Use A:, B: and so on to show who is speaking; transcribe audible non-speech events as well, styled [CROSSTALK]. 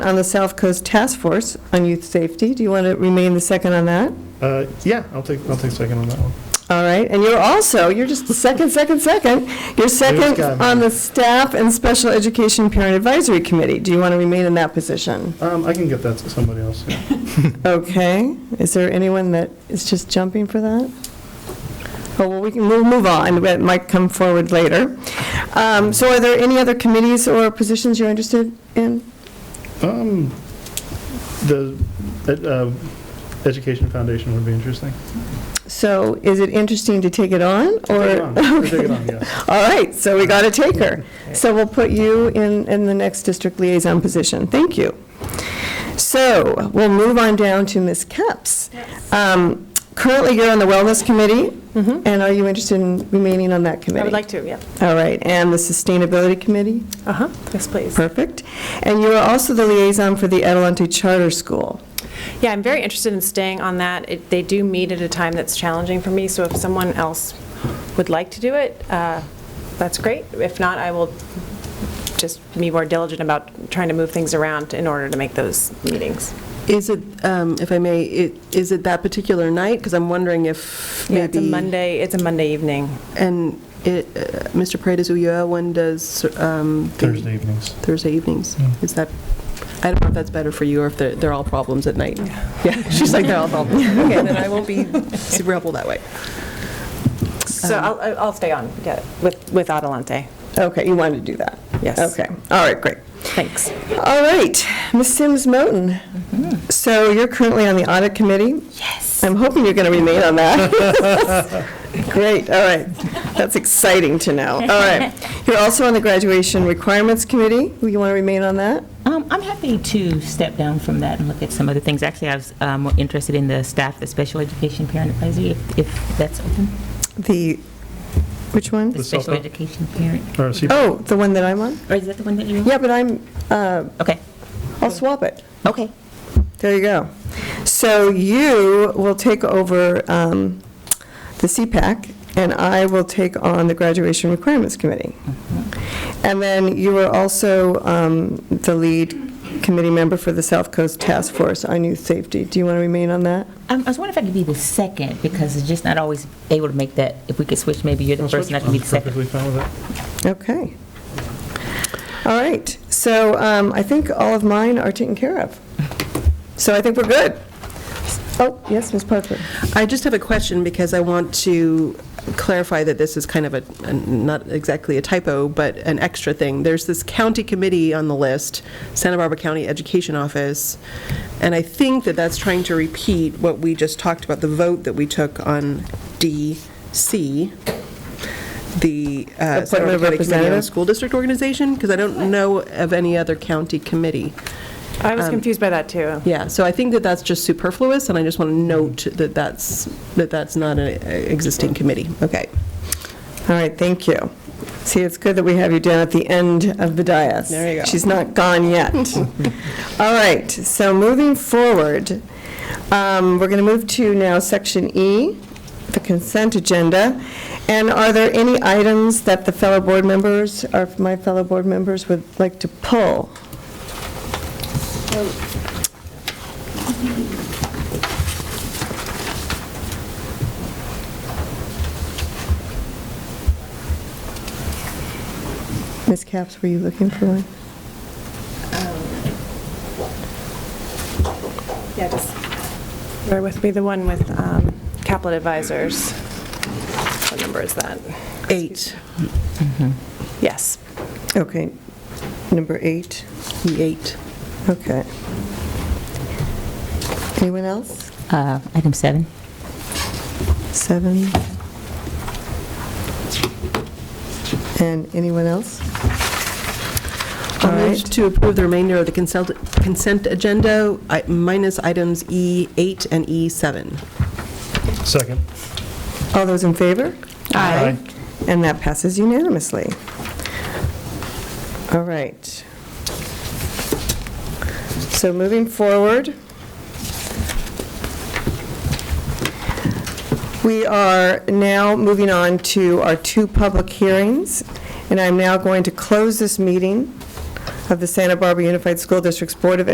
A: on the South Coast Task Force on Youth Safety. Do you want to remain the second on that?
B: Uh, Yeah, I'll take, I'll take second on that one.
A: All right, and you're also, you're just the second, second, second. You're second
B: got me.
A: on the Staff and Special Education Parent Advisory Committee. Do you want to remain in that position?
B: Um, I can get that to somebody else. yeah.
A: Okay, is there anyone that is just jumping for that? Oh, well, we can, we'll move on, it might come forward later. Um, So are there any other committees or positions you're interested in?
B: Um, The ed- uh, Education Foundation would be interesting.
A: So is it interesting to take it on, or?
B: Take it on. I'll Take it on, yes.
A: All right, so we got a taker. So we'll put you in, in the next district liaison position. Thank you. So we'll move on down to Ms. Capps. Um, Currently, you're on the Wellness Committee, and are you interested in remaining on that committee?
C: I would Mm-hmm. like to, yeah.
A: All right, and the Sustainability Committee?
C: Uh-huh, yes, please.
A: Perfect. And you are also the liaison for the Adelante Charter School.
C: Yeah, I'm very interested in staying on that. It- They do meet at a time that's challenging for me, so if someone else would like to do it, uh, that's great. If not, I will just be more diligent about trying to move things around in order to make those meetings.
D: Is it, um, if I may, it- is it that particular night? Because I'm wondering if maybe...
C: Yeah, it's a Monday, it's a Monday evening.
D: And it, uh, Mr. Paredes Ulloa, when does... um, the-
B: Thursday evenings.
D: Thursday evenings? Is that, I don't know if that's better for you or if they're, they're all problems at night.
A: [LAUGHS]
D: Yeah, she's like, they're all problems. Okay, then I won't be rebel that way.
C: So I'll, I'll stay on, yeah, with, with Adelante.
A: Okay, you wanted to do that?
C: Yes.
A: Okay, all right, great.
C: Thanks.
A: All right, Ms. Sims Moten. So you're currently on the Audit Committee? Yes. I'm hoping you're going to remain on that. [LAUGHS] Great, all right. That's exciting to know. All right. You're also on the Graduation Requirements Committee. Will you want to remain on that?
E: Um, I'm happy to step down from that and look at some other things. Actually, I was uh, more interested in the staff, the special education parent advisory, if, if that's open.
A: The, which
E: The
A: one?
B: Yes.
E: special
B: SEPA?
E: education parent,
B: Or C-
A: Oh, the one that I'm on?
E: or is that the one that you're?
A: Yeah, but I'm, uh,
E: Okay,
A: I'll swap it.
E: okay.
A: There you go. So you will take over um, the CPAC, and I will take on the Graduation Requirements Committee. And then you are also um, the lead committee member for the South Coast Task Force on Youth Safety. Do you want to remain on that?
E: Um, I was wondering if I could be the second, because it's just not always able to make that, if we could switch, maybe you're the first and I can be the
B: I'm
E: second.
B: Perfectly fine with it.
A: Okay. All right. So um, I think all of mine are taken care of. So I think we're good. Oh, yes, Ms. Parker.
D: I just have a question because I want to clarify that this is kind of a, a- not exactly a typo, but an extra thing. There's this county committee on the list, Santa Barbara County Education Office, and I think that that's trying to repeat what we just talked about, the vote that we took on DC, the uh,
A: Appointment
D: Santa
A: of
D: Barbara County Committee on
A: Representative?
D: School District Organization, because I don't know of any other county committee.
C: I was confused by that, too.
D: Yeah, so I think that that's just superfluous, and I just want to note that that's, that that's not an existing committee. Okay.
A: All right, thank you. See, it's good that we have you down at the end of the dais.
D: There you go.
A: She's not gone
D: [LAUGHS]
A: yet. All right, so moving forward, um, we're going to move to now Section E, the consent agenda. And are there any items that the fellow board members, or my fellow board members would like to pull? Ms. Capps, were you looking for one?
C: Yeah, just bear with me, the one with um, Caplet Advisors. What number is that?
D: Eight.
C: Yes.
A: Okay, number eight,
D: The eight.
A: okay. Anyone else?
E: Uh, Item seven.
A: Seven. And anyone else? All
D: I move
A: right,
D: to approve the remainder of the consent consent agenda, I- minus items E8 and E E7.
B: Second.
A: all those in favor?
B: Aye.
A: And that passes unanimously. All right. So moving forward, we are now moving on to our two public hearings, and I'm now going to close this meeting of the Santa Barbara Unified School District's Board of